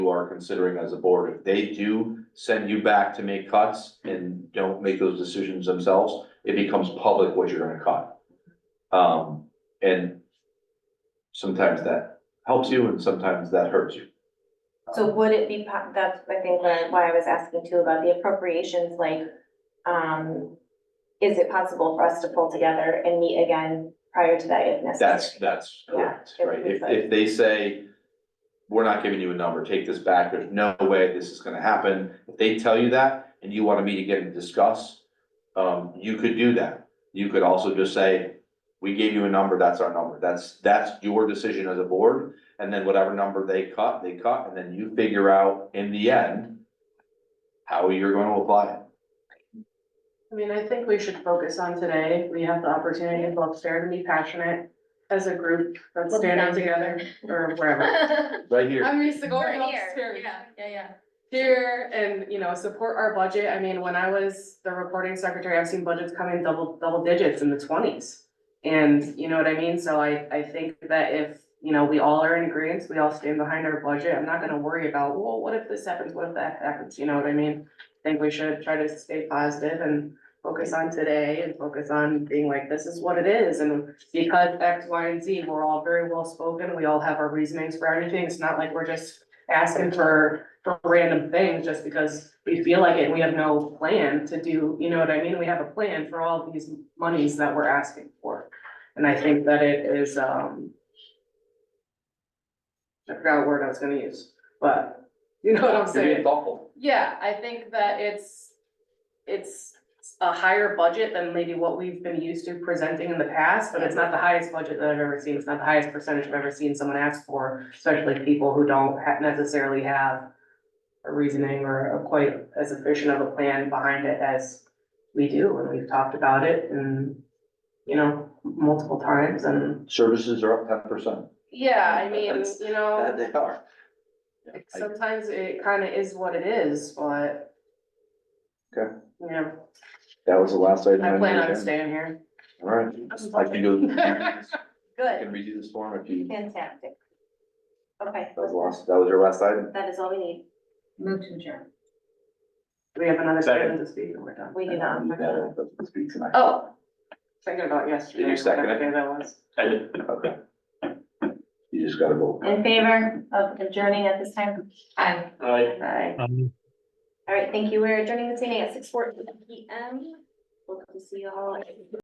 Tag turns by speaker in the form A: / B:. A: are considering as a board. If they do send you back to make cuts and don't make those decisions themselves, it becomes public what you're gonna cut. Um, and sometimes that helps you and sometimes that hurts you.
B: So would it be, po- that's, I think, why why I was asking too about the appropriations, like, um, is it possible for us to pull together and meet again prior to that if necessary?
A: That's, that's correct,
B: Yeah, it
A: right?
B: would be
A: If,
B: fine.
A: if they say, we're not giving you a number, take this back, there's no way this is gonna happen. If they tell you that and you wanna meet again and discuss, um, you could do that. You could also just say, we gave you a number, that's our number. That's, that's your decision as a board. And then whatever number they cut, they cut, and then you figure out in the end how you're gonna apply it.
C: I mean, I think we should focus on today. We have the opportunity to go upstairs and be passionate as a group that's
D: We'll be
C: standing
D: down here.
C: together or wherever.
A: Right here,
C: I'm used to going
D: Right here,
C: upstairs
D: Yeah, yeah, yeah.
C: here and, you know, support our budget. I mean, when I was the reporting secretary, I've seen budgets come in double, double digits in the twenties. And you know what I mean? So I, I think that if, you know, we all are in agreement, we all stand behind our budget, I'm not gonna worry about, well, what if this happens, what if that happens, you know what I mean? I think we should try to stay positive and focus on today and focus on being like, this is what it is. And because X, Y, and Z, we're all very well spoken, we all have our reasonings for everything. It's not like we're just asking for for random things just because we feel like it, and we have no plan to do, you know what I mean? We have a plan for all these monies that we're asking for. And I think that it is, um. I forgot what word I was gonna use, but you know what I'm
A: you're
C: saying?
A: being thoughtful.
C: Yeah, I think that it's, it's a higher budget than maybe what we've been used to presenting in the past, but it's not the highest budget that I've ever seen. It's not the highest percentage I've ever seen someone ask for, especially people who don't ha- necessarily have a reasoning or a quite as efficient of a plan behind it as we do, and we've talked about it and, you know, multiple times and,
A: Services are up ten percent.
C: yeah, I mean,
A: That's-
C: you know.
A: They are.
C: Like,
A: I-
C: Sometimes it kinda is what it is, but.
A: Okay.
C: Yeah,
A: That was the last item.
C: I plan on
A: understand.
C: staying here.
A: All right, I can do, I
B: Good,
A: can read you this form if you, that
B: fantastic. Okay,
A: was last, that was your last item.
B: that is all we need.
D: Move to adjourn.
C: We have another
A: Second.
C: second to speak and we're done.
B: We do not.
A: You got it, but speak tonight.
C: Oh, thinking about yesterday.
A: Did you second it?
C: whatever day that was.
A: Okay. You just gotta vote.
B: In favor of adjourning at this time?
D: Aye.
C: Aye.
B: All right, thank you. We're adjourning this meeting at six fourteen P M. Hope to see you all.